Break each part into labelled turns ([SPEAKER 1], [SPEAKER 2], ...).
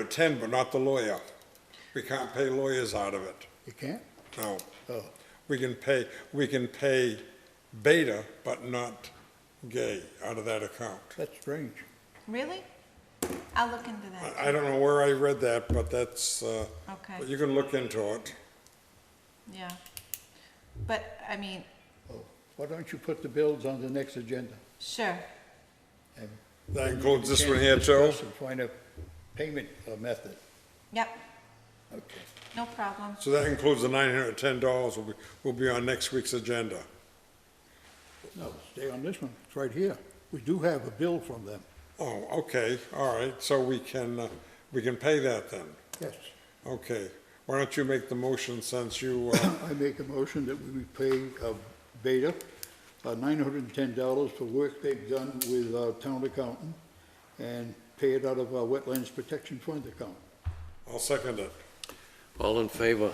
[SPEAKER 1] attend, but not the lawyer. We can't pay lawyers out of it,
[SPEAKER 2] You can't?
[SPEAKER 1] no.
[SPEAKER 2] Oh.
[SPEAKER 1] We can pay, we can pay beta, but not gay out of that account.
[SPEAKER 2] That's strange.
[SPEAKER 3] Really? I'll look into that.
[SPEAKER 1] I, I don't know where I read that, but that's, uh, but
[SPEAKER 3] Okay,
[SPEAKER 1] you can look into it.
[SPEAKER 3] yeah. But, I mean,
[SPEAKER 2] Oh, Why don't you put the bills on the next agenda?
[SPEAKER 3] sure,
[SPEAKER 2] and
[SPEAKER 1] That includes this
[SPEAKER 2] chance
[SPEAKER 1] one
[SPEAKER 2] to
[SPEAKER 1] here, Joe?
[SPEAKER 2] discuss and Find a payment uh, method.
[SPEAKER 3] yep,
[SPEAKER 2] Okay.
[SPEAKER 3] no problem.
[SPEAKER 1] So that includes the nine hundred and ten dollars will be, will be on next week's agenda.
[SPEAKER 2] No, stay on this one. It's right here. We do have a bill from them.
[SPEAKER 1] Oh, okay, all right, so we can, uh, we can pay that then,
[SPEAKER 2] Yes.
[SPEAKER 1] okay. Why don't you make the motion since you, uh,
[SPEAKER 2] I make a motion that we pay uh, Beta uh, $910 for work they've done with our town accountant and pay it out of our Wetlands Protection Fund account.
[SPEAKER 1] I'll second it.
[SPEAKER 4] All in favor?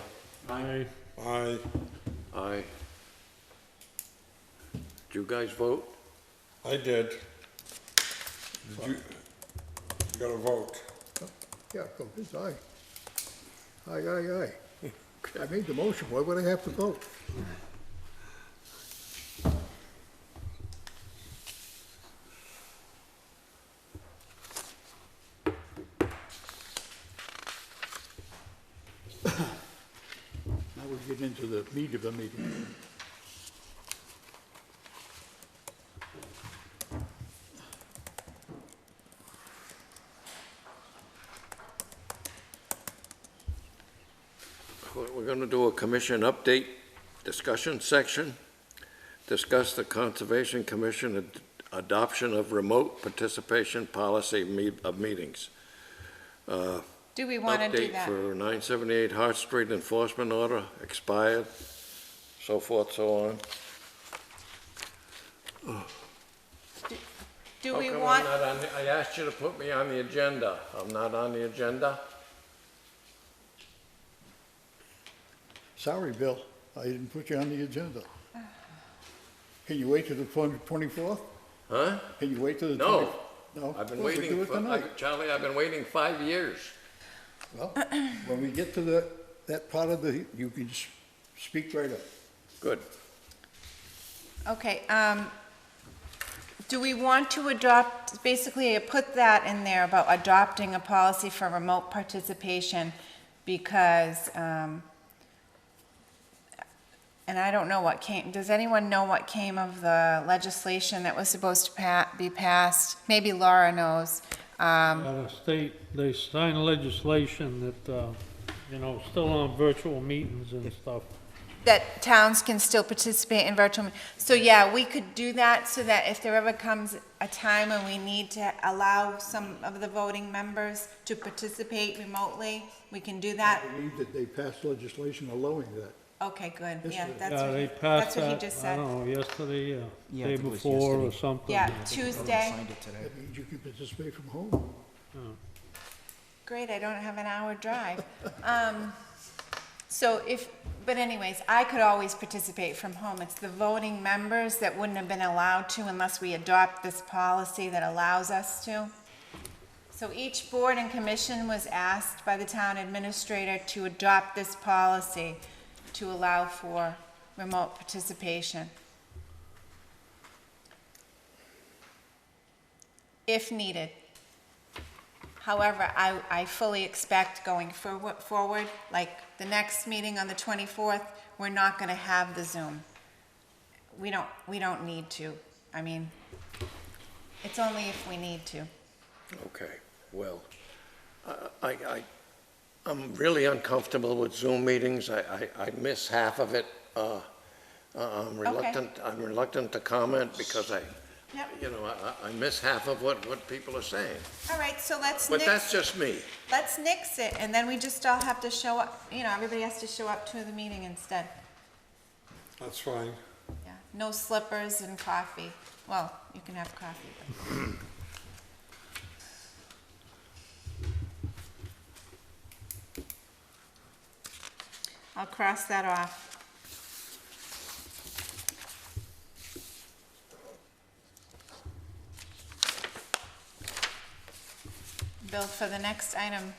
[SPEAKER 5] Aye.
[SPEAKER 1] I,
[SPEAKER 4] Aye. Did you guys vote?
[SPEAKER 1] I did. Did you, you got a vote?
[SPEAKER 2] Yeah, go, it's aye. Aye, aye, aye. I made the motion, why would I have to vote? Now we get into the meat of the meeting.
[SPEAKER 4] We're we're gonna do a commission update discussion section. Discuss the Conservation Commission ad- adoption of remote participation policy me- of meetings. Uh,
[SPEAKER 3] Do we want to do
[SPEAKER 4] Update
[SPEAKER 3] that?
[SPEAKER 4] for 978 Hart Street enforcement order expired, so forth, so on.
[SPEAKER 3] Do we want,
[SPEAKER 4] How Oh, come I'm not on, the- I asked you to put me on the agenda. I'm not on the agenda?
[SPEAKER 2] Sorry, Bill, I didn't put you on the agenda. Can you wait till the twenty-fourth?
[SPEAKER 4] Huh?
[SPEAKER 2] Can you wait till the
[SPEAKER 4] No.
[SPEAKER 2] twenty? No.
[SPEAKER 4] I've been
[SPEAKER 2] Well, we do
[SPEAKER 4] waiting
[SPEAKER 2] it
[SPEAKER 4] for,
[SPEAKER 2] tonight.
[SPEAKER 4] I- Charlie, I've been waiting five years.
[SPEAKER 2] Well, when we get to the, that part of the, you can s- speak right up.
[SPEAKER 4] Good.
[SPEAKER 3] okay, um, do we want to adopt, basically, I put that in there about adopting a policy for remote participation because, um, and I don't know what came, does anyone know what came of the legislation that was supposed to pa- be passed? Maybe Laura knows. Um,
[SPEAKER 5] Out of state, they signed legislation that, uh, you know, still on virtual meetings and stuff.
[SPEAKER 3] that towns can still participate in virtual, me- so yeah, we could do that so that if there ever comes a time when we need to allow some of the voting members to participate remotely, we can do that.
[SPEAKER 2] I believe that they passed legislation allowing that.
[SPEAKER 3] Okay, good, yeah, that's
[SPEAKER 5] Yeah,
[SPEAKER 3] what,
[SPEAKER 5] they
[SPEAKER 3] he-
[SPEAKER 5] passed
[SPEAKER 3] that's what he
[SPEAKER 5] that,
[SPEAKER 3] just
[SPEAKER 5] I
[SPEAKER 3] said.
[SPEAKER 5] don't know, yesterday, uh,
[SPEAKER 6] Yeah, I
[SPEAKER 5] day
[SPEAKER 6] think it was
[SPEAKER 5] before or
[SPEAKER 6] yesterday.
[SPEAKER 5] something.
[SPEAKER 3] Yeah,
[SPEAKER 6] I
[SPEAKER 3] Tuesday,
[SPEAKER 6] signed it today.
[SPEAKER 2] That means you can participate from home.
[SPEAKER 3] great, I don't have an hour drive. Um, so if, but anyways, I could always participate from home, it's the voting members that wouldn't have been allowed to unless we adopt this policy that allows us to. So each board and commission was asked by the town administrator to adopt this policy to allow for remote participation. If needed. However, I, I fully expect going forward, forward, like the next meeting on the 24th, we're not gonna have the Zoom. We don't, we don't need to. I mean, it's only if we need to.
[SPEAKER 4] Okay, well, I, I, I- I'm really uncomfortable with Zoom meetings. I, I, I miss half of it. Uh, uh, I'm reluctant, I'm reluctant to comment because I,
[SPEAKER 3] Yep.
[SPEAKER 4] you know, I, I- I miss half of what, what people are saying.
[SPEAKER 3] All right, so let's
[SPEAKER 4] But
[SPEAKER 3] nix,
[SPEAKER 4] that's just me.
[SPEAKER 3] let's nix it, and then we just all have to show up, you know, everybody has to show up to the meeting instead.
[SPEAKER 1] That's fine.
[SPEAKER 3] Yeah, no slippers and coffee. Well, you can have coffee. but- I'll cross that off. Bill, for the next item,